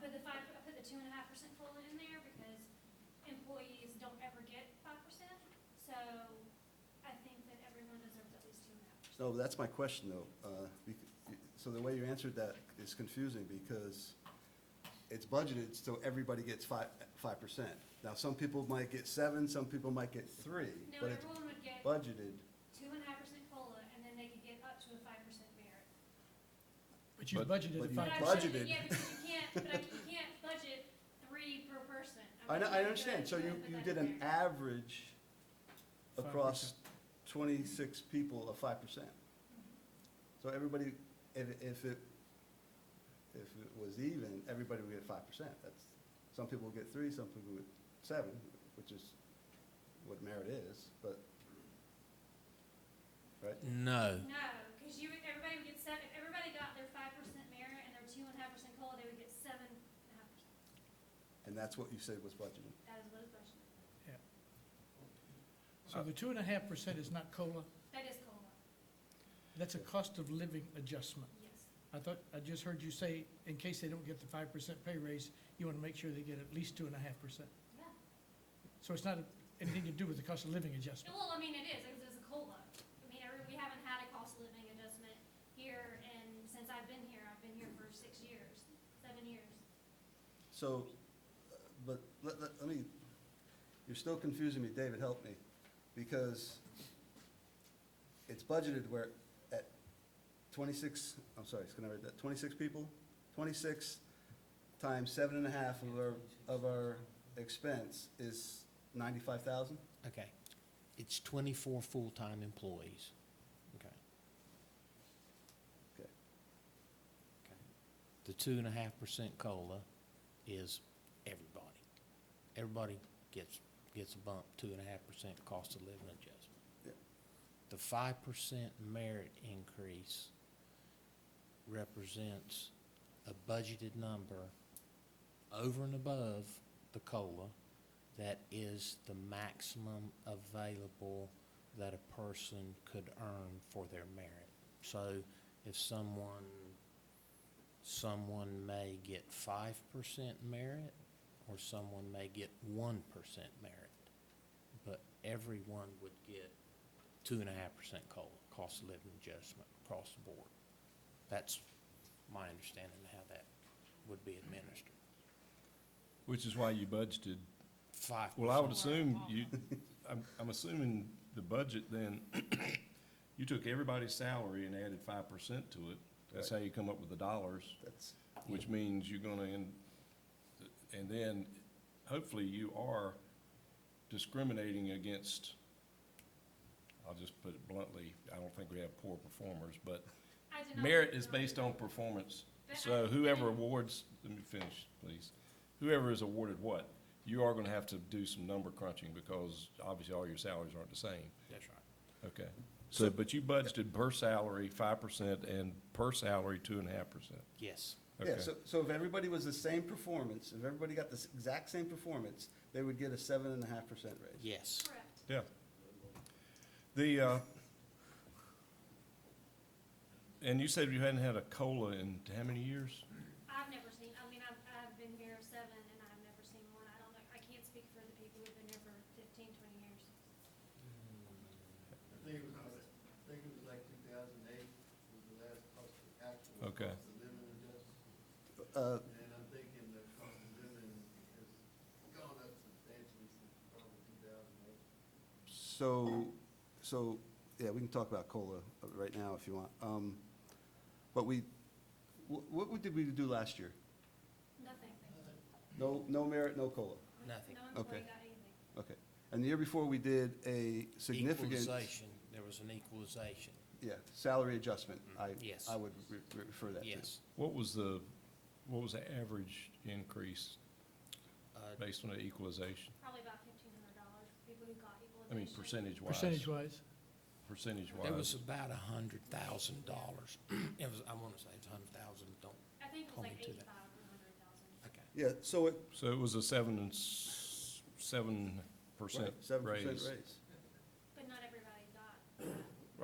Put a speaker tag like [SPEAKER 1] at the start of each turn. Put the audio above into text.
[SPEAKER 1] put the five, I put the two and a half percent COLA in there because employees don't ever get five percent. So I think that everyone deserves at least two and a half.
[SPEAKER 2] No, that's my question, though. Uh, bec- So the way you answered that is confusing, because it's budgeted, so everybody gets five, five percent. Now, some people might get seven, some people might get three,
[SPEAKER 1] No,
[SPEAKER 2] but it's
[SPEAKER 1] everyone would get
[SPEAKER 2] budgeted.
[SPEAKER 1] two and a half percent COLA and then they could get up to a five percent merit.
[SPEAKER 3] But you
[SPEAKER 4] But-
[SPEAKER 3] budgeted
[SPEAKER 2] but
[SPEAKER 3] at
[SPEAKER 2] you
[SPEAKER 1] But
[SPEAKER 3] five
[SPEAKER 1] I'm
[SPEAKER 3] percent.
[SPEAKER 2] budget-
[SPEAKER 1] saying,
[SPEAKER 2] budgeted.
[SPEAKER 1] Yeah, because you can't, but I mean, you can't budget three per person.
[SPEAKER 2] I know,
[SPEAKER 1] mean,
[SPEAKER 2] I
[SPEAKER 1] you
[SPEAKER 2] understand,
[SPEAKER 1] could,
[SPEAKER 2] so you,
[SPEAKER 1] but
[SPEAKER 2] you
[SPEAKER 1] that's
[SPEAKER 2] did an
[SPEAKER 1] fair.
[SPEAKER 2] average across twenty-six people of five percent.
[SPEAKER 1] Mm-hmm.
[SPEAKER 2] So everybody, if, if it, if it was even, everybody would get five percent. That's, some people would get three, some people would seven, which is what merit is, but, right?
[SPEAKER 4] No.
[SPEAKER 1] No, because you, would- everybody would get seven, if everybody got their five percent merit and their two and a half percent COLA, they would get seven and a half percent.
[SPEAKER 2] And that's what you said was budgeted.
[SPEAKER 1] That is what is budgeted.
[SPEAKER 3] So the two and a half percent is not COLA,
[SPEAKER 1] That is COLA,
[SPEAKER 3] that's a cost of living adjustment.
[SPEAKER 1] yes.
[SPEAKER 3] I thought, I just heard you say, in case they don't get the five percent pay raise, you want to make sure they get at least two and a half percent.
[SPEAKER 1] Yeah.
[SPEAKER 3] So it's not anything to do with the cost of living adjustment.
[SPEAKER 1] Well, I mean, it is, because it's a COLA. I mean, every- we haven't had a cost of living adjustment here, and since I've been here, I've been here for six years, seven years.
[SPEAKER 2] So, uh, but let, let, let me, you're still confusing me, David, help me, because it's budgeted where at twenty-six, I'm sorry, it's gonna read that, twenty-six people? Twenty-six times seven and a half of our, of our expense is ninety-five thousand?
[SPEAKER 4] Okay. It's twenty-four full-time employees. Okay.
[SPEAKER 2] Okay.
[SPEAKER 4] Okay. The two and a half percent COLA is everybody. Everybody gets, gets a bump, two and a half percent cost of living adjustment.
[SPEAKER 2] Yep.
[SPEAKER 4] The five percent merit increase represents a budgeted number over and above the COLA that is the maximum available that a person could earn for their merit. So if someone, someone may get five percent merit, or someone may get one percent merit, but everyone would get two and a half percent COLA, cost of living adjustment across the board. That's my understanding of how that would be administered.
[SPEAKER 5] Which is why you budgeted,
[SPEAKER 4] Five
[SPEAKER 5] well, I would
[SPEAKER 4] percent.
[SPEAKER 5] assume you, I'm, I'm assuming the budget then, you took everybody's salary and added five percent to it. That's how you come up with the dollars,
[SPEAKER 2] That's,
[SPEAKER 5] which means you're gonna end, and then hopefully you are discriminating against, I'll just put it bluntly, I don't think we have poor performers, but
[SPEAKER 1] I did not-
[SPEAKER 5] merit is based on performance.
[SPEAKER 1] But
[SPEAKER 5] So
[SPEAKER 1] I-
[SPEAKER 5] whoever awards, let me finish, please. Whoever is awarded what, you are gonna have to do some number crunching because obviously all your salaries aren't the same.
[SPEAKER 4] That's right.
[SPEAKER 5] Okay. So, but you budgeted per salary five percent and per salary two and a half percent.
[SPEAKER 4] Yes.
[SPEAKER 2] yeah, so, so if everybody was the same performance, if everybody got the s- exact same performance, they would get a seven and a half percent raise.
[SPEAKER 4] Yes.
[SPEAKER 1] Correct.
[SPEAKER 5] Yeah. The, uh, and you said you hadn't had a COLA in how many years?
[SPEAKER 1] I've never seen, I mean, I've, I've been here seven and I've never seen one. I don't know, I can't speak for the people who've been here for fifteen, twenty years.
[SPEAKER 6] I think it was, like- I think it was like two thousand eight was the last cost, actual
[SPEAKER 5] Okay.
[SPEAKER 6] cost of living adjustment.
[SPEAKER 2] Uh,
[SPEAKER 6] And I'm thinking the cost of living has gone up substantially since probably two thousand eight.
[SPEAKER 2] So, so, yeah, we can talk about COLA uh, right now if you want. Um, But we, wh- what we- did we do last year?
[SPEAKER 1] Nothing.
[SPEAKER 2] No, no merit, no COLA?
[SPEAKER 4] Nothing.
[SPEAKER 1] No
[SPEAKER 2] Okay.
[SPEAKER 1] employee got anything.
[SPEAKER 2] Okay. And the year before, we did a significant,
[SPEAKER 4] Equalization, there was an equalization,
[SPEAKER 2] yeah, salary adjustment. I,
[SPEAKER 4] Mm-hmm. Yes.
[SPEAKER 2] I would re- re- refer that to.
[SPEAKER 4] yes.
[SPEAKER 5] What was the, what was the average increase
[SPEAKER 4] Uh,
[SPEAKER 5] based on the equalization?
[SPEAKER 1] Probably about fifteen hundred dollars for people who got equalization.
[SPEAKER 5] I mean, percentage wise.
[SPEAKER 3] Percentage wise,
[SPEAKER 5] Percentage
[SPEAKER 4] There was
[SPEAKER 5] wise.
[SPEAKER 4] about a hundred thousand dollars, it was, I wanna say it's a hundred thousand, don't,
[SPEAKER 1] I think it was
[SPEAKER 4] Hold
[SPEAKER 1] like
[SPEAKER 4] me to that.
[SPEAKER 1] eighty-five or hundred thousand.
[SPEAKER 4] okay.
[SPEAKER 2] Yeah, so it,
[SPEAKER 5] So it was a seven and s- seven percent
[SPEAKER 2] seven percent
[SPEAKER 5] raise.
[SPEAKER 2] raise.